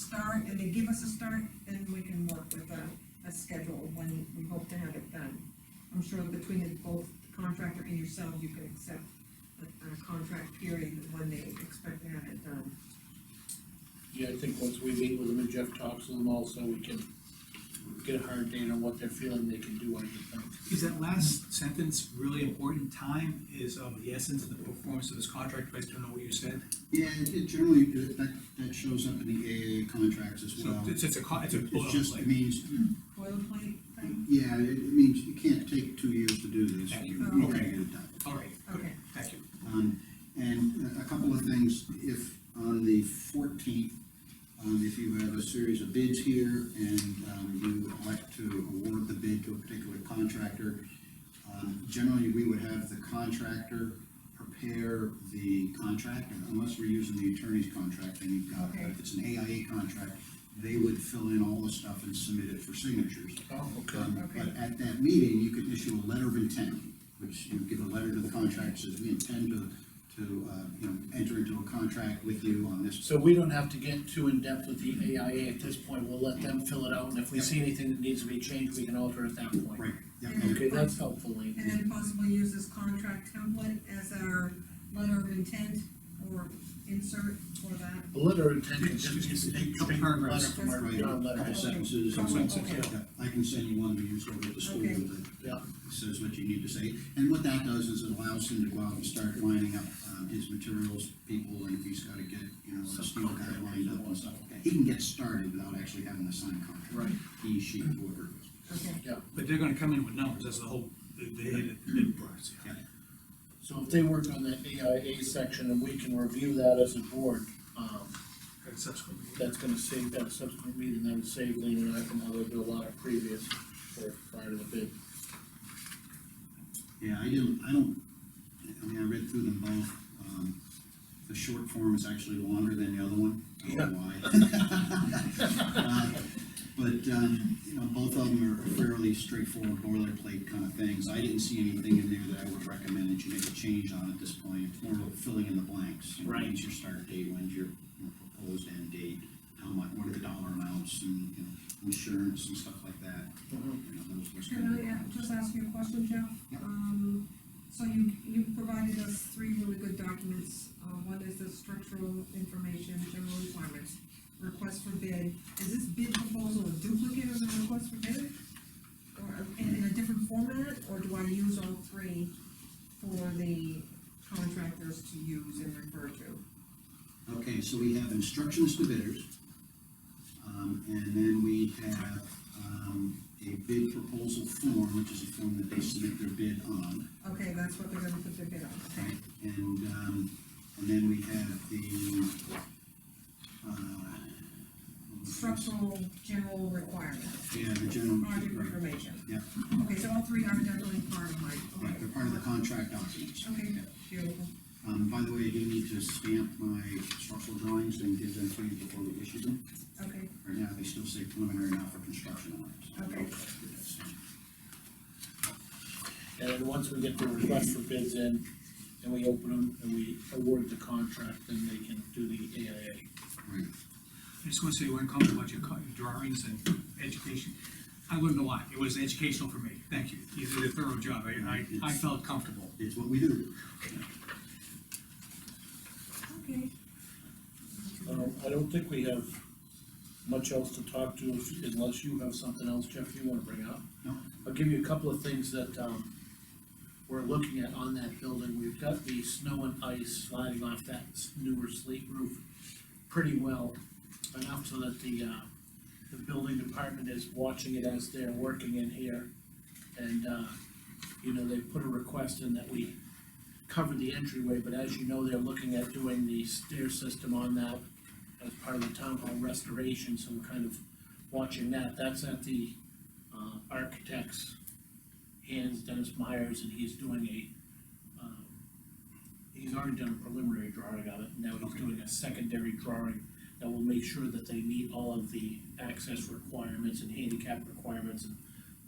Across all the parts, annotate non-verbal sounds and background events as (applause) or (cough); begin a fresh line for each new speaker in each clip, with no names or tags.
start, if they give us a start, then we can work with a, a schedule when we hope to have it done. I'm sure between the both contractor and yourself, you can accept a, a contract period when they expect to have it done.
Yeah, I think once we meet with them and Jeff talks to them also, we can get a hard date on what they're feeling they can do, I think.
Is that last sentence really important? Time is of the essence of the performance of this contract, based on what you said.
Yeah, it it generally, uh, that, that shows up in the AAA contracts as
So
well.
it's, it's a, co- it's a
It just
boilerplate.
means,
Boilerplate thing?
yeah, it it means you can't take two years to do this.
Thank
You
you.
gotta
Okay.
get it done.
All right, good,
Okay.
thank you.
Um, and a- a couple of things, if, on the fourteenth, um, if you have a series of bids here and, um, you elect to award the bid to a particular contractor, um, generally, we would have the contractor prepare the contract, and unless we're using the attorney's contract, then you've got,
Okay.
if it's an AIA contract, they would fill in all the stuff and submit it for signatures.
Oh,
Um,
Okay.
But at that meeting, you could issue a letter of intent, which you give a letter to the contract, says we intend to, to, uh, you know, enter into a contract with you on this.
So we don't have to get too in-depth with the AIA at this point, we'll let them fill it out, and if we see anything that needs to be changed, we can alter at that point.
Right, yeah,
Mm-hmm.
Okay, that's helpful, Lean.
And then possibly use this contract template as our letter of intent or insert for that.
The letter of intent is
Just- just
just
a
a
couple
straight letter
paragraphs.
from our,
right,
our
a couple
letterhead.
sentences. and-
Couple sentences,
Yeah, I can send you one we use over at the school
Okay.
that
Yeah,
says what you need to say. And what that does is it allows him to go out and start lining up, um, his materials, people, and if he's gotta get, you know, a steel guy lined up and stuff. He can get started without actually having to sign a contract.
Right.
He, she, whoever.
Okay.
yeah.
But they're gonna come in with numbers, that's the whole, the, the, the process.
Yeah.
So if they work on the AIA section and we can review that as a board, um,
And subsequent.
that's gonna save, that subsequent meeting, that would save Lean and I from having to do a lot of previous work prior to the bid.
Yeah, I didn't, I don't, I mean, I read through them both. Um, The short form is actually longer than the other one. I don't know why. (laughs) Uh, But, um, you know, both of them are fairly straightforward boilerplate kind of things. I didn't see anything in there that I would recommend that you make a change on at this point. It's more of filling in the blanks. You know,
Right.
When's your start date, when's your you know, proposed end date, how much, what are the dollar amounts and, you know, insurance and stuff like that. You know, those- those kind of
Can I uh,
things.
just ask you a question, Jeff?
Yeah.
Um, so you, you provided us three really good documents, uh, one is the structural information, general requirements, request for bid, is this bid proposal a duplicate of the request for bid? Or in, in a different format, or do I use all three for the contractors to use and refer to?
Okay, so we have instructions to bidders. Um, and then we have, um, a bid proposal form, which is a form that they submit their bid on,
Okay, that's what they're gonna put their bid on, okay?
right? And, um, and then we have the, uh.
Structural general requirements,
Yeah, the general.
project
right,
information.
Yeah,
Okay, so all three are definitely part of my.
right, they're part of the contract documents.
Okay, beautiful.
Um, by the way, I do need to stamp my structural drawings and give them to you before we issue them.
Okay,
Right now, they still say preliminary now for construction on it. so I don't
Okay.
know if that's good, so.
And then once we get the request for bids in, and we open them, and we award the contract, then they can do the AIA.
Right,
I just wanna say one comment about your co- drawings and education. I learned a lot, it was educational for me, thank you. You did a thorough job, I, I, I felt comfortable.
it's what we do.
okay.
Um, I don't think we have much else to talk to if- unless you have something else, Jeff, you wanna bring up.
No.
I'll give you a couple of things that, um, we're looking at on that building. We've got the snow and ice sliding off that s- newer slate roof pretty well, enough so that the, uh, the building department is watching it as they're working in here. And, uh, you know, they put a request in that we cover the entryway, but as you know, they're looking at doing the stair system on that as part of the town hall restoration, so we're kind of watching that. That's at the, uh, architect's hands, Dennis Myers, and he's doing a, um, he's already done a preliminary drawing of it, and now he's
Okay.
doing a secondary drawing that will make sure that they meet all of the access requirements and handicap requirements and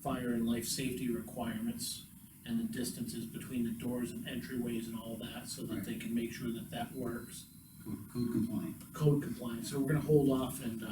fire and life safety requirements and the distances between the doors and entryways and all that, so that
Right.
they can make sure that that works.
Code code compliant.
Code compliance, so we're gonna hold off and, uh,